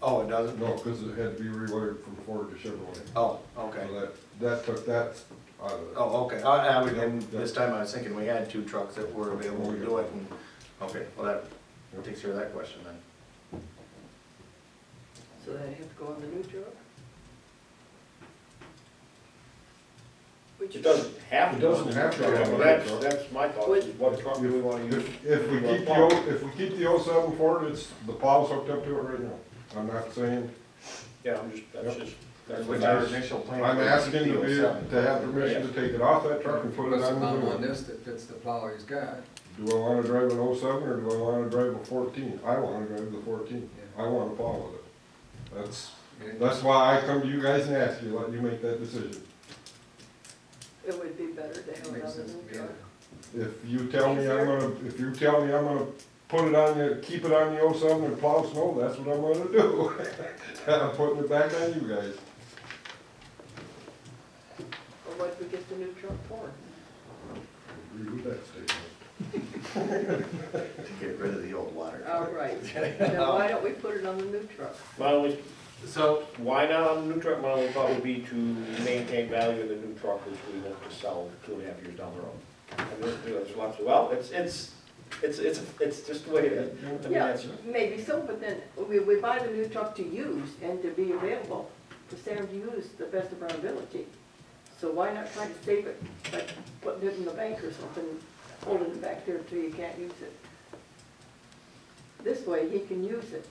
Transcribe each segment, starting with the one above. Oh, it doesn't? No, because it had to be rewired from Ford to Chevrolet. Oh, okay. So that, that took that out of it. Oh, okay, I, I would, and this time I was thinking we had two trucks that were available to do it, and, okay, well, that takes care of that question then. So they have to go on the new truck? Which It doesn't have to. It doesn't have to. Well, that's, that's my thought, is what truck do we wanna use? If, if we keep the, O- if we keep the oh seven Ford, it's, the plow's hooked up to it right now. I'm not saying, Yeah, I'm just, that's Yep. just, that's Which what our I initial plan. I'm was asking to be, 57. to have permission to take it off that truck and put it on What's the the new problem on one. this that fits the plow he's got? Do I wanna drive an oh seven or do I wanna drive a fourteen? I wanna drive the fourteen. Yeah. I wanna plow with it. That's, And it- that's why I come to you guys and ask you, let you make that decision. It would be better to have it Makes another sense to new me. truck. If you tell me I'm gonna, if you tell me I'm gonna put it on the, keep it on the oh seven and plow snow, that's what I'm gonna do. I'm putting it back on you guys. Or what we get the new truck for? Agree with that statement. To get rid of the old water. All Oh, right, now why don't we put it on the new truck? My only, So, why not on the new truck, my only thought would be to maintain value in the new truck, which we want to sell two and a half years down the road. And there's, there's lots of, well, it's, it's, it's, it's, it's just the way it is. I mean, Yeah, that's- maybe so, but then we, we buy the new truck to use and to be available, to stand to use the best of our ability. So why not try to save it, like putting it in the bank or something, holding it back there until you can't use it? This way, he can use it.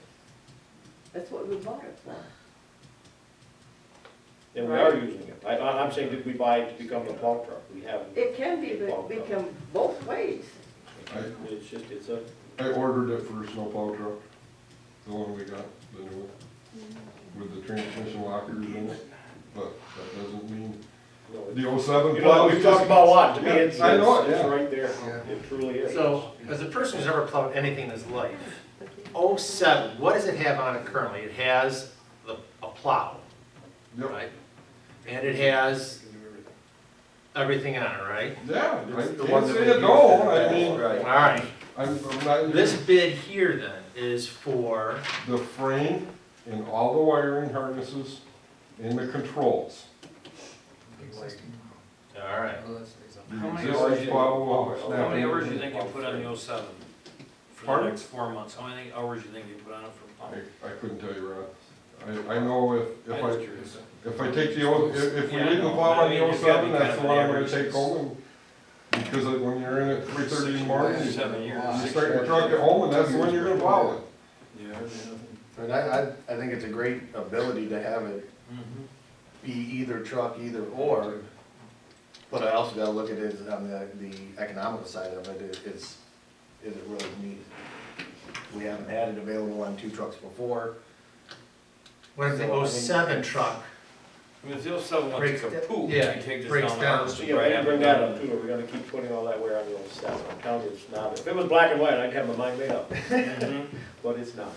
That's what we bought it for. And we are using it. I, I- I'm saying, did we buy it to become a plow truck? We haven't. It can be, become both ways. I- It's just, it's a, I ordered it for a snowplow truck, the one we got, the new one, with the transmission lockers in it, but that doesn't mean, no, it's. the oh seven You know, plow. we've talked about a lot, to me, Yeah, it's, it's I know it, it's yeah. right there, Yeah. it truly is. So, as a person who's ever plowed anything in his life, oh seven, what does it have on it currently? It has the, a plow, Yep, right? And it has everything on it, right? yeah, I the one can't that say we it used no, in the I mean, past, All Right, right, I'm, I'm not. this bid here then is for, the frame and all the wiring harnesses and the controls. all right. Well, oh, that's reasonable. The How many existing hours you- firewall is How now- many hours you think you put on the 07 for Pardon? the next four months? How many hours you think you put on it for pump? I, I couldn't tell you, Ron. I, I know if, if I'm just I, curious. if I take the old, if, if we Yeah, I leave the know. plow on I the mean, old it's gotta seven, be that's the kind one of I'm gonna average. take home. and- Because like when you're in at three thirty in the morning, you Seven years. you start your truck at home and that's the one you're gonna plow with. Yeah. but I, I, I think it's a great ability to have it Mhm. be either truck, either or. But I also gotta look at it as on the, the economical side of it, it, it's, is it really needed? We haven't had it available on two trucks before. What if the oh seven truck? I mean, if the 07 one takes a Breaks- poop, you yeah, take this breaks down the down. harvest. So, and yeah, right we can after bring that that- up too, are we gonna keep putting all that wear on the old stuff? I'm telling you, it's not, if it was black and white, I'd have my mind made up, Mhm. but it's not.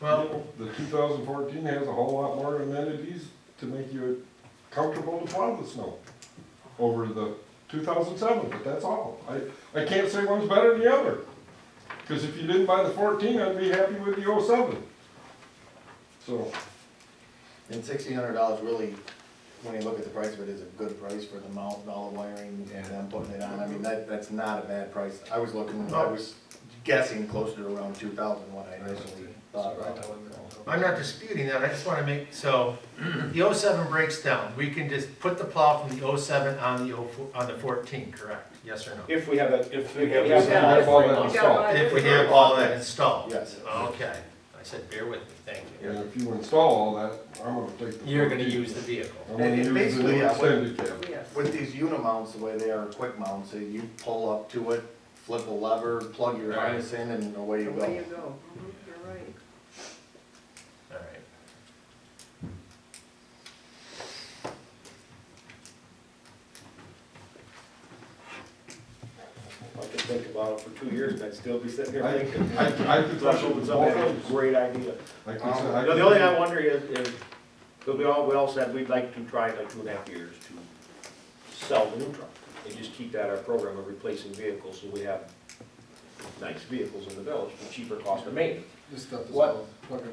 Well, The two thousand fourteen has a whole lot more amenities to make you comfortable to plow the snow over the two thousand seven, but that's all. I, I can't say one's better than the other. Cause if you didn't buy the fourteen, I'd be happy with the oh seven. So, And sixteen hundred dollars really, when you look at the price of it, is a good price for the mount, and all the wiring, and them putting it on, I mean, that, that's not a bad price. I was looking, Oh, I was guessing closer to around two thousand when I initially thought about it. I'm not disputing that, I just wanna make, so, the oh seven breaks down, we can just put the plow from the oh seven on the oh, four- on the fourteen, correct? Yes or no? If we have that, if we Yeah, have. we that- all that We installed. gotta buy a If new we truck. have all that installed? Yes. Okay, I said, bear with me, thank you. and if you install all that, I'm gonna take the. You're gonna 14. use the vehicle. I'm gonna And it use the new basically, yeah, what- extended cab. Yes. With these unimounts, the way they are, quick mounts, so you pull up to it, flip a lever, plug your Right. harness in, and away you The way you go. go, Mhm, you're right. All right. I could think about it for two years and I'd still be sitting here I- thinking. I, I could. That's what was up, that's a great idea. I could. Um, I The could- only thing I wonder is, is, because we all, we all said we'd like to try in like two and a half years to sell the new truck. And just keep that our program of replacing vehicles, so we have nice vehicles in the village, for cheaper cost of maintenance. This stuff is What- all fucking